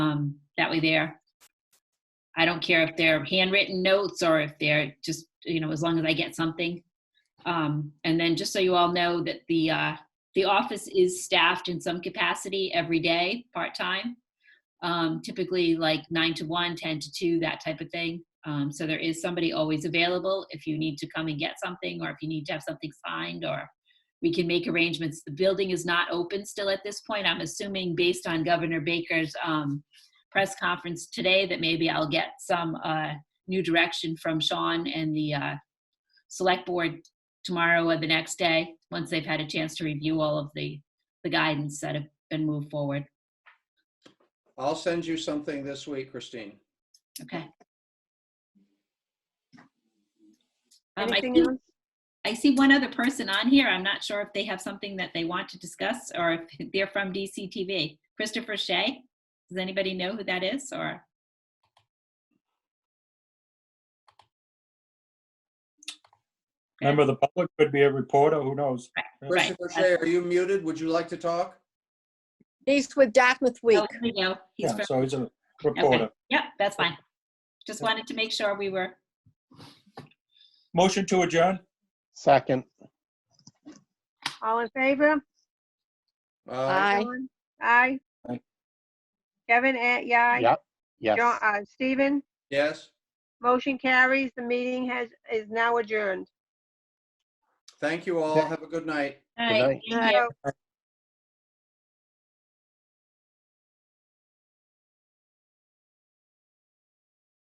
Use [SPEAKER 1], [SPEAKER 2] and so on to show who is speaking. [SPEAKER 1] um, That way there. I don't care if they're handwritten notes or if they're just, you know, as long as I get something. Um, and then just so you all know that the, uh, the office is staffed in some capacity every day, part-time. Um, typically like nine to one, 10 to two, that type of thing. Um, so there is somebody always available if you need to come and get something or if you need to have something signed or we can make arrangements. The building is not open still at this point. I'm assuming based on Governor Baker's, um, press conference today that maybe I'll get some, uh, new direction from Sean and the, uh, select board tomorrow or the next day, once they've had a chance to review all of the, the guidance that have been moved forward.
[SPEAKER 2] I'll send you something this week, Christine.
[SPEAKER 1] Okay. Um, I
[SPEAKER 3] Anything
[SPEAKER 1] see-
[SPEAKER 3] else?
[SPEAKER 1] I see one other person on here. I'm not sure if they have something that they want to discuss or if they're from DCTV. Christopher Shea, does anybody know who that is or? Okay.
[SPEAKER 4] Member of the public could be a reporter, who knows?
[SPEAKER 1] Right.
[SPEAKER 2] Christopher Shea, are you muted? Would you like to talk?
[SPEAKER 3] He's with Dartmouth Week.
[SPEAKER 1] Oh, here we go. He's
[SPEAKER 4] Yeah,
[SPEAKER 1] from,
[SPEAKER 4] so he's a reporter.
[SPEAKER 1] yep, that's fine. Just wanted to make sure we were,
[SPEAKER 4] Motion to adjourn?
[SPEAKER 5] Second.
[SPEAKER 6] All in favor?
[SPEAKER 2] Uh,
[SPEAKER 6] Ellen? Aye.
[SPEAKER 4] Aye.
[SPEAKER 6] Kevin, eh, yeah. aye.
[SPEAKER 5] Yep. Yes.
[SPEAKER 6] Jo- uh, Stephen,
[SPEAKER 2] Yes,
[SPEAKER 6] motion carries. The meeting has, is now adjourned.
[SPEAKER 2] thank you all. Have a good night.
[SPEAKER 1] all
[SPEAKER 5] Good
[SPEAKER 1] right.
[SPEAKER 5] night.
[SPEAKER 1] thank you.